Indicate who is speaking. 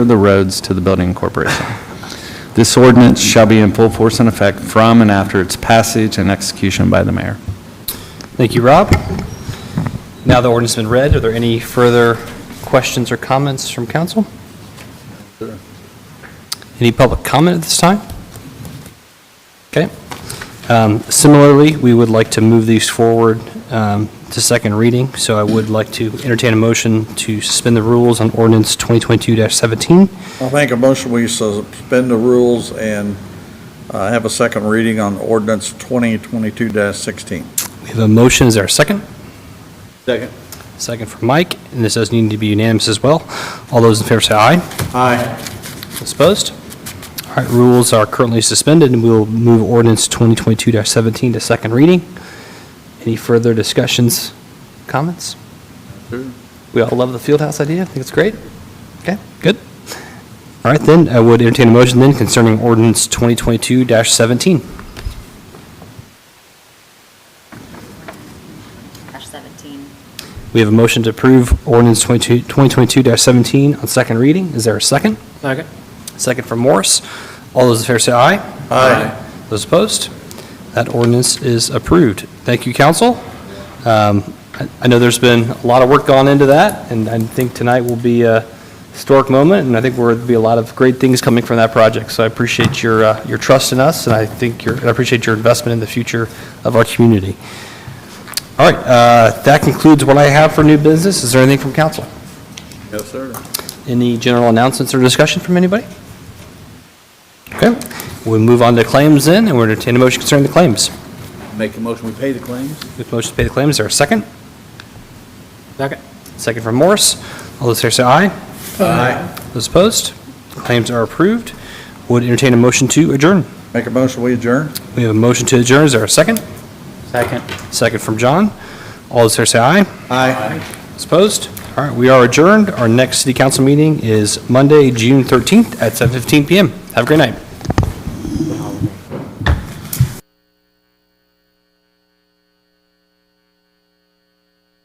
Speaker 1: of the roads to the building corporation. This ordinance shall be in full force and effect from and after its passage and execution by the mayor.
Speaker 2: Thank you, Rob. Now the ordinance has been read, are there any further questions or comments from council? Any public comment at this time? Okay. Um, Similarly, we would like to move these forward um, to second reading, so I would like to entertain a motion to suspend the rules on ordinance 2022-17.
Speaker 3: I think a motion we suspend the rules and uh, have a second reading on ordinance 2022-16.
Speaker 2: We have a motion, is there a second?
Speaker 3: Second.
Speaker 2: Second from Mike, and this does need to be unanimous as well. All those in favor say aye.
Speaker 3: Aye.
Speaker 2: Those Opposed? All right, rules are currently suspended, and we'll move ordinance 2022-17 to second reading. Any further discussions, comments? We all love the field house idea, I think it's great. Okay, good. All right, then, I would entertain a motion then concerning ordinance 2022-17.
Speaker 4: Dash 17.
Speaker 2: We have a motion to approve ordinance 22 2022-17 on second reading. Is there a second? Second. Second from Morse. All those in favor say aye.
Speaker 3: Aye.
Speaker 2: Those opposed? That ordinance is approved. Thank you, council. Um, I I know there's been a lot of work gone into that, and I think tonight will be a historic moment, and I think there'll be a lot of great things coming from that project. So I appreciate your, uh, your trust in us, and I think your, and I appreciate your investment in the future of our community. All right, uh, that concludes what I have for new business. Is there anything from council?
Speaker 3: Yes, sir.
Speaker 2: Any general announcements or discussion from anybody? Okay, we move on to claims then, and we're entertaining a motion concerning the claims.
Speaker 3: Make a motion we pay the claims?
Speaker 2: With motion to pay the claims, is there a second? Second. Second from Morris. All those here say aye.
Speaker 3: Aye.
Speaker 2: Those opposed? Claims are approved. Would entertain a motion to adjourn.
Speaker 3: Make a motion we adjourn?
Speaker 2: We have a motion to adjourn, is there a second? Second. Second from John. All those here say aye.
Speaker 3: Aye.
Speaker 2: Those opposed? All right, we are adjourned. Our next city council meeting is Monday, June 13th at 7:15 PM. Have a great night.